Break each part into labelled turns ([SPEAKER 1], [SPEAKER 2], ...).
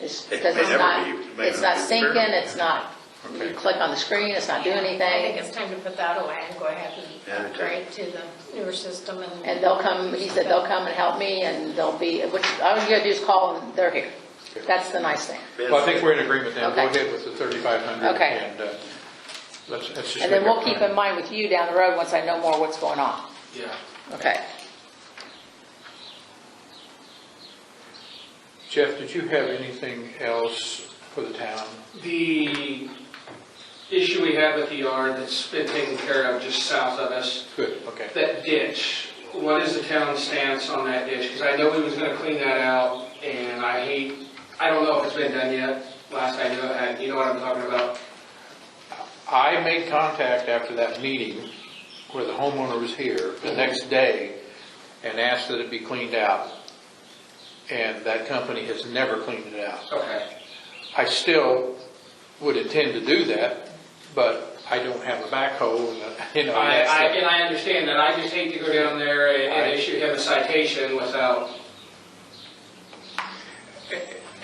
[SPEAKER 1] It's
[SPEAKER 2] It
[SPEAKER 1] because
[SPEAKER 2] may
[SPEAKER 1] it's
[SPEAKER 2] never
[SPEAKER 1] not,
[SPEAKER 2] be- may
[SPEAKER 1] it's
[SPEAKER 2] not
[SPEAKER 1] not
[SPEAKER 2] be
[SPEAKER 1] syncing,
[SPEAKER 2] fair.
[SPEAKER 1] it's not, you
[SPEAKER 2] Okay.
[SPEAKER 1] click on the screen, it's not doing
[SPEAKER 3] I think
[SPEAKER 1] anything.
[SPEAKER 3] it's time to put that away and go ahead
[SPEAKER 2] Yeah, I
[SPEAKER 3] and
[SPEAKER 2] do.
[SPEAKER 3] upgrade to the newer system and.
[SPEAKER 1] And they'll come, he said they'll come and help me and they'll be, which, all you gotta do is call and they're here. That's the nice thing.
[SPEAKER 4] Well, I think we're in agreement then, go
[SPEAKER 1] Okay.
[SPEAKER 4] ahead with the 3,500.
[SPEAKER 1] Okay.
[SPEAKER 4] And uh, let's, let's just.
[SPEAKER 1] And then
[SPEAKER 4] make
[SPEAKER 1] we'll
[SPEAKER 4] our
[SPEAKER 1] keep
[SPEAKER 4] plan.
[SPEAKER 1] in mind with you down the road, once I know more what's going on.
[SPEAKER 4] Yeah.
[SPEAKER 1] Okay.
[SPEAKER 4] Jeff, did you have anything else for the town?
[SPEAKER 5] The issue we had with the yard that's been taken care of just south of us,
[SPEAKER 4] Good, okay.
[SPEAKER 5] that ditch, what is the town stance on that ditch? Because I know we was gonna clean that out, and I hate, I don't know if it's been done yet, last I knew, it had- you know what I'm talking about?
[SPEAKER 4] I made contact after that meeting where the homeowner was here the
[SPEAKER 1] Mm-hmm.
[SPEAKER 4] next day and asked that it be cleaned out. And that company has never cleaned it out.
[SPEAKER 5] Okay,
[SPEAKER 4] I still would intend to do that, but I don't have a backhoe and, uh, you know.
[SPEAKER 5] I,
[SPEAKER 4] that's
[SPEAKER 5] I,
[SPEAKER 4] the-
[SPEAKER 5] and I understand that, I just hate to go down there and- and
[SPEAKER 4] I-
[SPEAKER 5] issue him a citation without,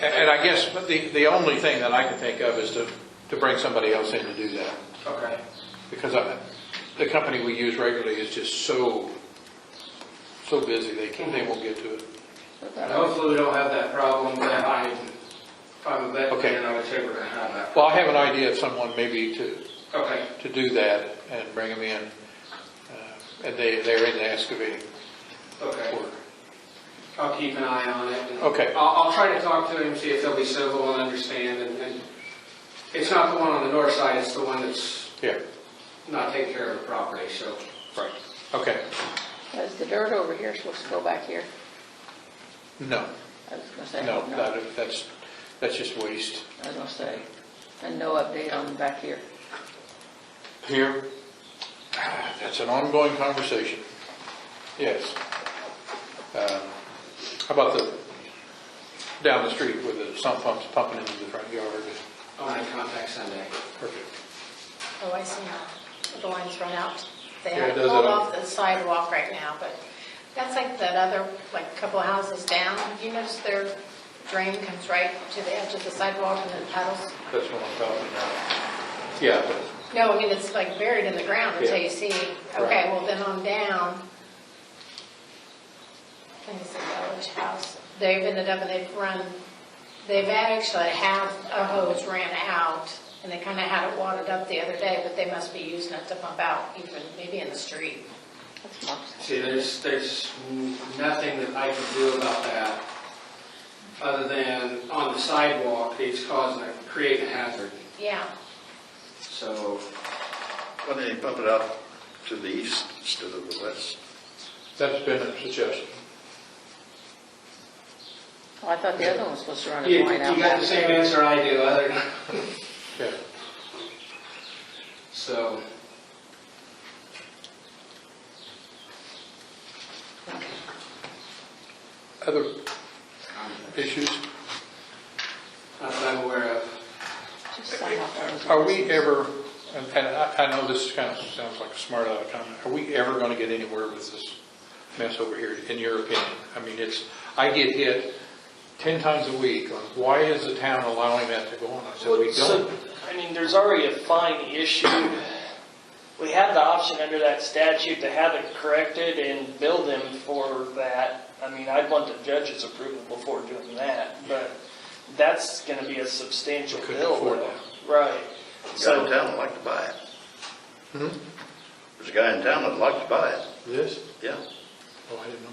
[SPEAKER 4] And I guess the, the only thing that I can think of is to, to bring somebody else in to do that.
[SPEAKER 5] okay.
[SPEAKER 4] Because I, the company we use regularly is just so, so busy, they can't, they won't get to it.
[SPEAKER 5] Hopefully we don't have that problem, but I, if I'm a vet,
[SPEAKER 4] Okay.
[SPEAKER 5] then I would say we're gonna have that.
[SPEAKER 4] Well, I have an idea of someone maybe to,
[SPEAKER 5] Okay,
[SPEAKER 4] to do that and bring them in. uh, And they, they're in the excavating
[SPEAKER 5] okay.
[SPEAKER 4] work.
[SPEAKER 5] I'll keep an eye on it.
[SPEAKER 4] Okay.
[SPEAKER 5] I'll, I'll try to talk to him, see if they'll be civil and understand, and, and it's not the one on the north side, it's the one that's
[SPEAKER 4] Yeah,
[SPEAKER 5] not taking care of the property, so.
[SPEAKER 4] right. Okay,
[SPEAKER 1] Is the dirt over here supposed to go back here?
[SPEAKER 4] no,
[SPEAKER 1] I was gonna say, I
[SPEAKER 4] no,
[SPEAKER 1] hope not.
[SPEAKER 4] that- that's, that's just waste.
[SPEAKER 1] I was gonna say, and no update on back here.
[SPEAKER 4] Here, ah, that's an ongoing conversation. Yes. Um, How about the, down the street with the sump pumps pumping into the front yard?
[SPEAKER 5] I'll make contact Sunday.
[SPEAKER 4] Perfect.
[SPEAKER 3] Oh, I see now. The line's run out. They
[SPEAKER 4] Yeah, it
[SPEAKER 3] have
[SPEAKER 4] does
[SPEAKER 3] pulled
[SPEAKER 4] that.
[SPEAKER 3] off the sidewalk right now, but that's like that other, like couple houses down. You notice their drain comes right to the edge of the sidewalk and then puddles?
[SPEAKER 4] That's what I'm talking about. Yeah,
[SPEAKER 3] No, I mean, it's like buried in the ground until
[SPEAKER 4] Yeah.
[SPEAKER 3] you see,
[SPEAKER 4] Right.
[SPEAKER 3] okay, well then on down. I think it's the village house. They've ended up and they've run, they've actually half a hose ran out and they kind of had it watered up the other day, but they must be using it to pump out even, maybe in the street.
[SPEAKER 1] That's Mark's.
[SPEAKER 5] See, there's, there's nothing that I can do about that, other than on the sidewalk, it's causing, a- creating a hazard,
[SPEAKER 3] Yeah,
[SPEAKER 5] so.
[SPEAKER 2] Why don't you pump it out to the east instead of the west?
[SPEAKER 4] that's been a suggestion.
[SPEAKER 1] Oh, I thought the other one was supposed to run
[SPEAKER 5] You,
[SPEAKER 1] his
[SPEAKER 5] you
[SPEAKER 1] line out
[SPEAKER 5] got
[SPEAKER 1] back.
[SPEAKER 5] the same answer I do, other than,
[SPEAKER 4] Yeah,
[SPEAKER 5] so.
[SPEAKER 4] other issues?
[SPEAKER 5] Not that I'm aware of.
[SPEAKER 1] Just somehow that was-
[SPEAKER 4] Are we ever, and and I I know this kind of sounds like a smart aleck comment, are we ever going to get anywhere with this mess over here, in your opinion? I mean, it's, I get hit 10 times a week on, why is the town allowing that to go on? I said,
[SPEAKER 6] Well,
[SPEAKER 4] we
[SPEAKER 6] so,
[SPEAKER 4] don't.
[SPEAKER 6] I mean, there's already a fine issued. We have the option under that statute to have it corrected and bill them for that. I mean, I'd want the judge's approval before doing that, but that's gonna be a substantial
[SPEAKER 4] We couldn't
[SPEAKER 6] bill.
[SPEAKER 4] afford
[SPEAKER 6] though. Right.
[SPEAKER 2] The guy in
[SPEAKER 6] So,
[SPEAKER 2] town would like to buy it. There's a guy in town that'd like to buy it,
[SPEAKER 4] This?
[SPEAKER 2] yeah.
[SPEAKER 4] Oh, I didn't know.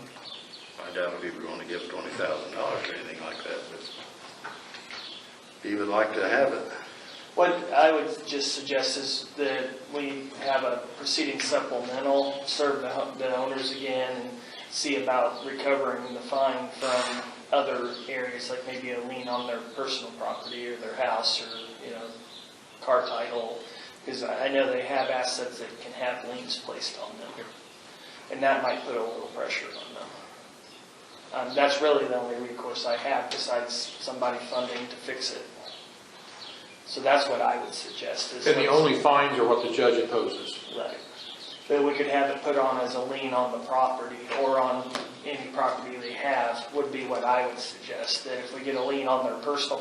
[SPEAKER 2] I doubt if he would want to give twenty thousand dollars or anything like that, but he would like to have it.
[SPEAKER 6] what I would just suggest is that we have a proceeding supplemental, serve the ho- the owners again, and see about recovering the fine from other areas, like maybe a lien on their personal property or their house or, you know, car title, because I I know they have assets that can have liens placed on them. And that might put a little pressure on them. Um, That's really the only recourse I have besides somebody funding to fix it. So that's what I would suggest is.
[SPEAKER 4] And the only fines are what the judge imposes.
[SPEAKER 6] Right. That we could have it put on as a lien on the property or on any property they have would be what I would suggest. That if we get a lien on their personal